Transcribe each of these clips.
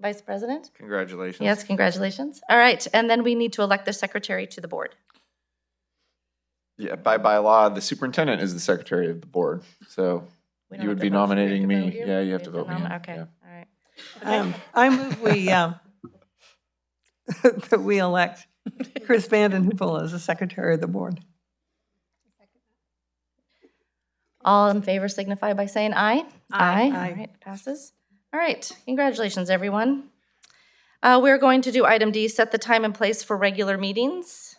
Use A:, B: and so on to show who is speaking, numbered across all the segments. A: Vice President?
B: Congratulations.
A: Yes, congratulations. All right, and then we need to elect the secretary to the board.
B: Yeah, by, by law, the superintendent is the secretary of the board, so
A: We don't have
B: you
A: to
B: would be
A: vote. Do we
B: nominating
A: have to vote
B: me.
A: here?
B: Yeah, you
A: We
B: have to vote me.
A: nom-
B: in,
A: Okay,
B: yeah.
A: all right.
C: Um, I move we, um, that we elect Chris Vanden Heuvel as the secretary of the board.
A: All in favor signify by saying aye.
D: Aye.
A: All
C: Aye.
A: right, passes. All right, congratulations, everyone. Uh, We're going to do item D, set the time and place for regular meetings.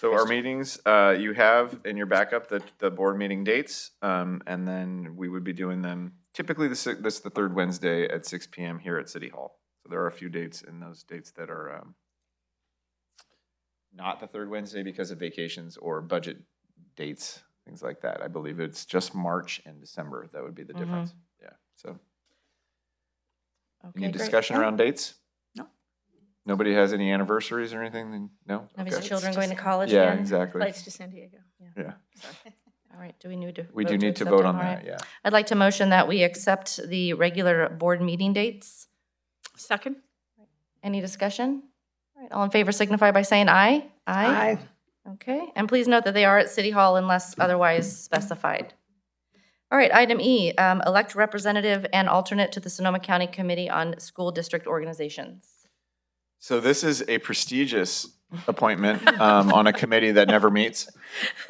B: So our meetings, uh, you have in your backup the, the board meeting dates, um, and then we would be doing them typically this, this the third Wednesday at six PM here at City Hall. So there are a few dates in those dates that are, um, not the third Wednesday because of vacations or budget dates, things like that. I believe it's just March and December. That would be the
A: Mhm.
B: difference. Yeah, so.
A: Okay, great.
B: Any discussion
A: No?
B: around dates?
C: No.
B: Nobody has any anniversaries or anything? Then- No?
A: Have his
B: Okay.
A: children
D: Just-
A: going to college
B: Yeah,
A: again?
B: exactly.
D: Flights to San Diego.
B: Yeah.
A: All right, do we need to?
B: We
A: vote
B: do need to
A: accept
B: vote
A: them?
B: on
A: All right.
B: that, yeah.
A: I'd like to motion that we accept the regular board meeting dates.
D: Second?
A: Any discussion? All right, all in favor signify by saying aye. Okay, and please note that they are at City Hall unless otherwise specified. All right, item E, um, elect representative and alternate to the Sonoma County Committee on School District Organizations.
B: So this is a prestigious appointment um, on a committee that never meets.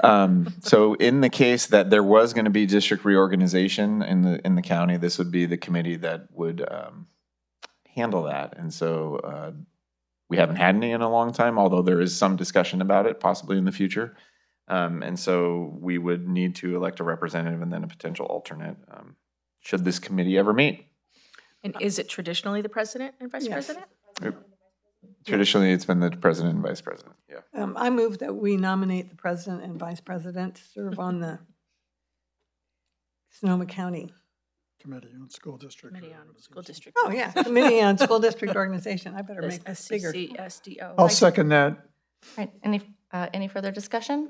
B: Um, So in the case that there was going to be district reorganization in the, in the county, this would be the committee that would um, handle that. And so uh, we haven't had any in a long time, although there is some discussion about it possibly in the future. Um, And so we would need to elect a representative and then a potential alternate, um, should this committee ever meet.
D: And is it traditionally the president and vice
C: Yes.
D: president?
B: Traditionally, it's been the president and vice president, yeah.
C: Um, I move that we nominate the president and vice president to serve on the Sonoma County,
E: Committee on School District.
D: Committee on School
E: Reorganization.
D: District.
C: oh, yeah, Committee on School District Organization. I better make
D: E
C: this bigger.
D: SCCSDO.
E: I'll second that.
A: All right, any, uh, any further discussion?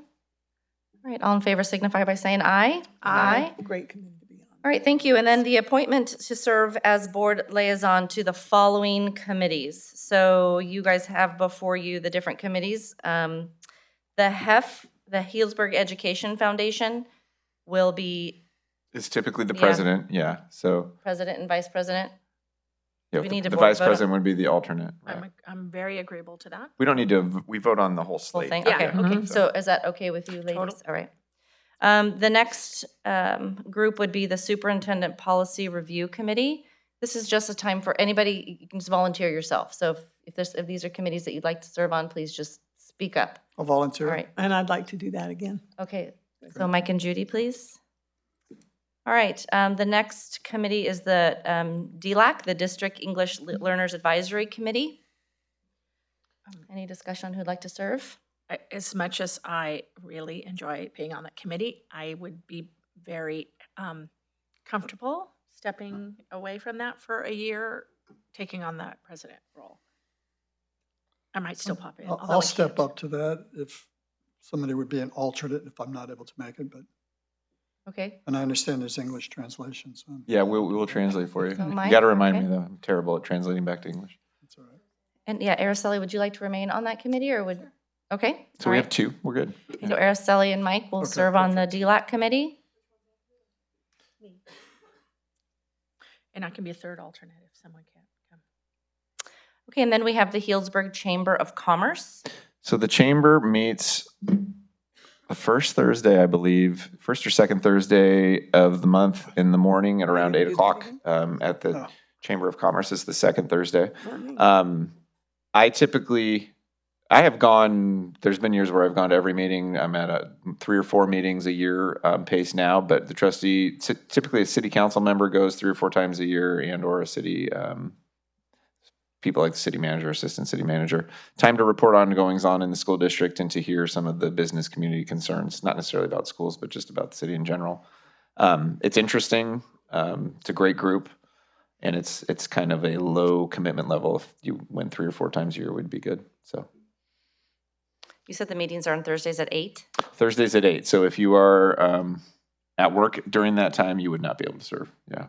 A: All right, all in favor signify by saying aye.
C: It's a Great committee to be on.
A: All right, thank you. And then the appointment to serve as board liaison to the following committees. So you guys have before you the different committees. Um, The HEF, the Healdsburg Education Foundation, will be
B: It's typically the
A: Yeah.
B: president, yeah, so,
A: president and vice president.
B: yeah,
A: We need
B: the
A: to
B: the
A: vote- Oh
B: vice
A: vote on-
B: president would be the alternate, right?
D: I'm, I'm very agreeable to that.
B: We don't need to, v- we vote on the whole slate.
A: thing?
D: Yeah,
A: Okay.
C: okay.
A: So is that okay with you ladies? All right. Um, The next um, group would be the Superintendent Policy Review Committee. This is just a time for anybody, you can just volunteer yourself. So if- if there's, if these are committees that you'd like to serve on, please just speak up.
E: I'll
A: All
E: volunteer.
A: right.
C: And I'd like to do that again.
A: Okay, so Mike and Judy, please. All right, um, the next committee is the um, DLAC, the District English Lit- Learners Advisory Committee. Um, Any discussion on who'd like to serve?
D: I- As much as I really enjoy being on that committee, I would be very um, comfortable stepping away from that for a year, taking on that president role. I might still pop in.
E: I'll-
D: although I
E: I'll step
D: can't.
E: up to that if somebody would be an alternate if I'm not able to make it, but,
A: Okay,
E: and I understand there's English translation, so
B: Yeah, we'll, we'll translate for you.
A: So
B: You
A: Mike,
B: gotta remind
A: okay.
B: me though, I'm terrible at translating back to English.
E: that's all right.
A: and yeah, Araceli, would you like to remain on that committee or would, okay?
B: So
A: all
B: we
A: right.
B: have two, we're good.
A: So Araceli and Mike will
E: Okay,
A: serve on the DLAC committee.
D: And I can be a third alternate if someone can't come.
A: Okay, and then we have the Healdsburg Chamber of Commerce.
B: So the chamber meets the first Thursday, I believe, first or second Thursday of the month in the morning at around
C: you
B: eight
C: do that
B: o'clock
C: again?
B: um, at the
E: Oh.
B: Chamber of Commerce. It's the second Thursday.
C: Not me.
B: Um, I typically, I have gone. There's been years where I've gone to every meeting. I'm at a three or four meetings a year um, pace now. But the trustee, ty- typically a city council member, goes three or four times a year, and or a city um, people like the city manager, assistant city manager. Time to report on goings on in the school district and to hear some of the business community concerns, not necessarily about schools, but just about the city in general. Um, it's interesting. Um, it's a great group and it's it's kind of a low commitment level. If you went three or four times a year, would be good. So
A: You said the meetings are on Thursdays at eight?
B: Thursdays at eight. So if you are um, at work during that time, you would not be able to serve. Yeah,